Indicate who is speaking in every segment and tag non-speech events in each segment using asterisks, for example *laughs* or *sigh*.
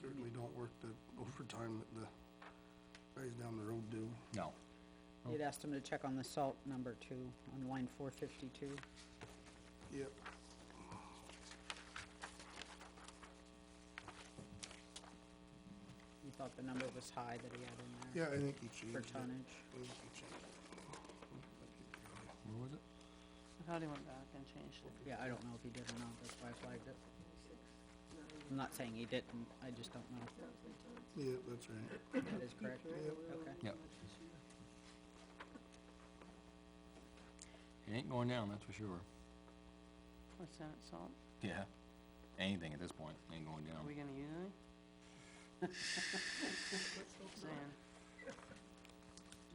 Speaker 1: certainly don't work the overtime that the guys down the road do.
Speaker 2: No.
Speaker 3: You'd asked him to check on the salt number two, on line four fifty-two.
Speaker 1: Yep.
Speaker 3: You thought the number was high that he had in there
Speaker 1: Yeah, I think he changed it.
Speaker 3: for
Speaker 1: I
Speaker 3: tonnage.
Speaker 1: think he changed it.
Speaker 2: Where was it?
Speaker 4: I thought he went back and changed it.
Speaker 3: Yeah, I don't know if he did or not, that's why I flagged it. I'm not saying he didn't, I just don't know.
Speaker 1: Yeah, that's right.
Speaker 3: That is correct? Okay.
Speaker 2: Yep. It ain't going down, that's for sure.
Speaker 4: What's that, salt?
Speaker 2: Yeah. Anything at this point ain't going
Speaker 4: Are we
Speaker 2: down.
Speaker 4: gonna use any? Saying,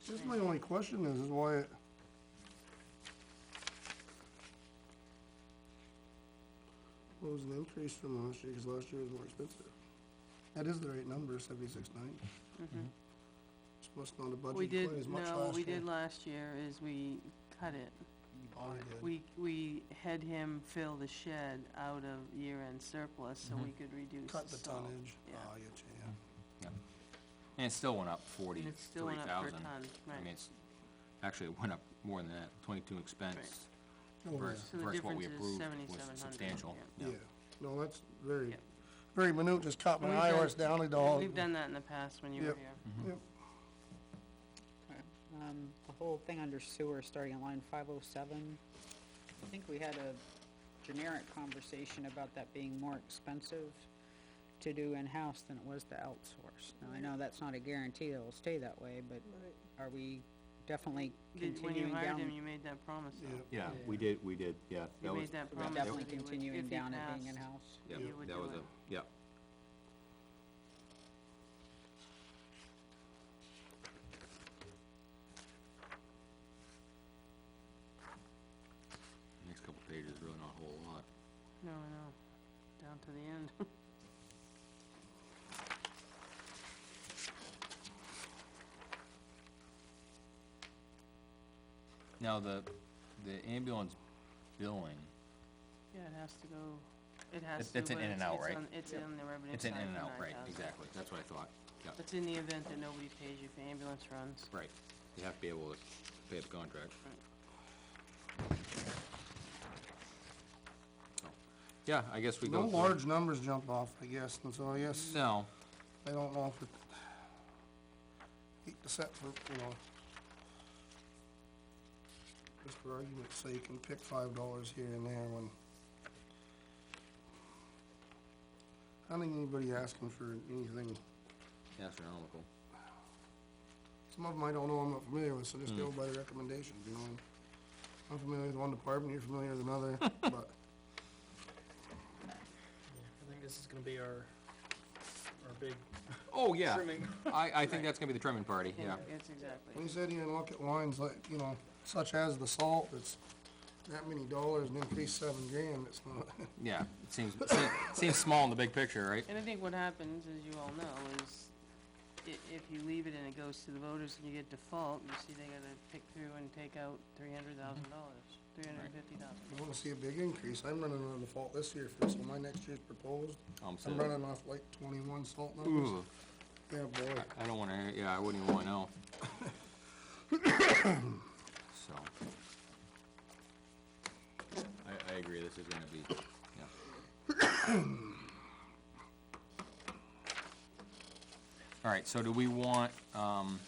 Speaker 1: Just my only question is, is why it. What was the increase from last year, because last year was more expensive? That is the right number, seventy-six nine. Just must not have
Speaker 4: Mm-hmm. we
Speaker 1: budgeted
Speaker 4: did,
Speaker 1: quite as much last year.
Speaker 4: no, what we did last year is we cut it.
Speaker 1: Oh, we did.
Speaker 4: We, we had him fill the shed out of year-end surplus so we could reduce
Speaker 1: Mm-hmm. Cut the
Speaker 4: salt.
Speaker 1: tonnage.
Speaker 4: Yeah.
Speaker 1: Oh, I get you, yeah.
Speaker 2: Yep. And it still went up
Speaker 4: And
Speaker 2: forty-three
Speaker 4: it still went up per
Speaker 2: thousand.
Speaker 4: ton,
Speaker 2: I mean,
Speaker 4: right.
Speaker 2: it's, actually, it went up more than that, twenty-two expense
Speaker 1: Oh,
Speaker 2: versus,
Speaker 4: So the
Speaker 2: versus what we
Speaker 4: difference is
Speaker 2: approved was
Speaker 4: 7,700,
Speaker 2: substantial.
Speaker 1: Yeah, Yeah. no, that's very,
Speaker 4: Yep.
Speaker 1: very minute, just caught my
Speaker 4: We've
Speaker 1: eye,
Speaker 4: done-
Speaker 1: horse down the dog.
Speaker 4: We've done that in the past when you were
Speaker 1: Yep.
Speaker 4: here.
Speaker 1: Yep,
Speaker 3: Um, the whole thing under sewer, starting on line five oh seven, I think we had a generic conversation about that being more expensive to do in-house than it was to outsource. Now, I know that's not a guarantee it'll stay that way, but are we definitely
Speaker 4: Did, when you
Speaker 3: continuing
Speaker 4: hired him,
Speaker 3: down?
Speaker 4: you made that promise though.
Speaker 1: yep.
Speaker 2: Yeah, we did, we did, yeah.
Speaker 4: You made that
Speaker 3: We're
Speaker 4: promise.
Speaker 3: definitely
Speaker 4: that he would- if
Speaker 3: continuing
Speaker 4: he
Speaker 3: down and being
Speaker 4: passed.
Speaker 3: in-house?
Speaker 2: Yeah,
Speaker 4: You would
Speaker 2: that
Speaker 4: do
Speaker 2: was
Speaker 4: it.
Speaker 2: a, yeah. Next couple pages, really not a whole lot.
Speaker 4: No, I know, down to the end. *laughs*
Speaker 2: Now, the, the ambulance billing,
Speaker 4: Yeah, it has to go, it has
Speaker 2: It's-
Speaker 4: to.
Speaker 2: it's an
Speaker 4: but
Speaker 2: in and out,
Speaker 4: it's
Speaker 2: right?
Speaker 4: on- It's in the revenue
Speaker 2: it's an
Speaker 4: side
Speaker 2: in and
Speaker 4: for
Speaker 2: out, right,
Speaker 4: 9,000.
Speaker 2: exactly, that's what I thought, yeah,
Speaker 4: It's in the event that nobody pays you for ambulance runs.
Speaker 2: right. You have to be able to pay the contract.
Speaker 4: Right.
Speaker 2: So, Yeah, I guess we go
Speaker 1: No
Speaker 2: through.
Speaker 1: large numbers jump off, I guess, and so I guess,
Speaker 2: No,
Speaker 1: I don't know if it, except for, you know, just for argument's sake, and pick five dollars here and there when I don't think anybody asking for anything
Speaker 2: astronomical.
Speaker 1: Some of them I don't know, I'm not familiar with, so
Speaker 2: Hmm.
Speaker 1: just go by the recommendations, you know? and I'm familiar with one department, you're familiar with another, *laughs* but
Speaker 5: I think this is gonna be our, our big
Speaker 2: Oh, yeah.
Speaker 5: trimming.
Speaker 2: I, I think that's gonna be the trimming party,
Speaker 4: Yeah,
Speaker 2: yeah.
Speaker 4: It's exactly.
Speaker 1: when you sit here and look at lines like, you know, such as the salt, it's that many dollars and increase seven grand, it's not, *laughs*
Speaker 2: Yeah, it seems, seems- seems small in the big picture, right?
Speaker 4: And I think what happens, as you all know, is i- if you leave it and it goes to the voters and you get default, you see they gotta pick through and take out three hundred thousand
Speaker 2: Mm-hmm.
Speaker 4: dollars, three hundred and fifty thousand.
Speaker 1: I wanna see a big increase. I'm running on default this year for, so my next year's proposed,
Speaker 2: I'm
Speaker 1: I'm
Speaker 2: sorry.
Speaker 1: running off like twenty-one salt numbers.
Speaker 2: Hmm. Ooh,
Speaker 1: Yeah, boy,
Speaker 2: I don't wanna, hear- yeah, I wouldn't even wanna know. *coughs* So. I, I agree, this is gonna be, yeah. *coughs* All right, so do we want, um,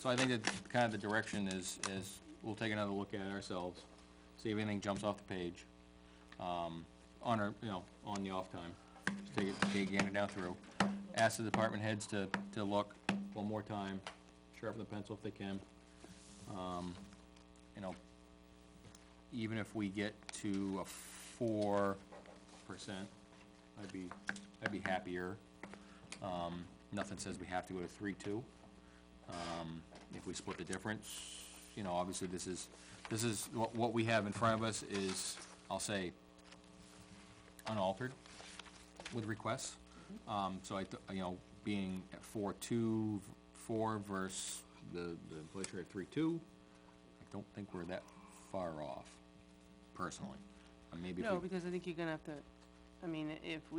Speaker 2: so I think that kind of the direction is, is we'll take another look at it ourselves, see if anything jumps off the page, um, on our, you know, on the off time. Just take it, take it down through. Ask the department heads to, to look one more time, sharpen the pencil if they can. Um, you know, even if we get to a four percent, I'd be, I'd be happier. Um, nothing says we have to go to three-two. Um, if we split the difference, you know, obviously this is, this is, what, what we have in front of us is, I'll say, unaltered with requests. Um, so I, th- you know, being at four-two, four versus the, the inflation at three-two, I don't think we're that far off, personally. Uh, Maybe if we
Speaker 4: No, because I think you're gonna have to, I mean, if we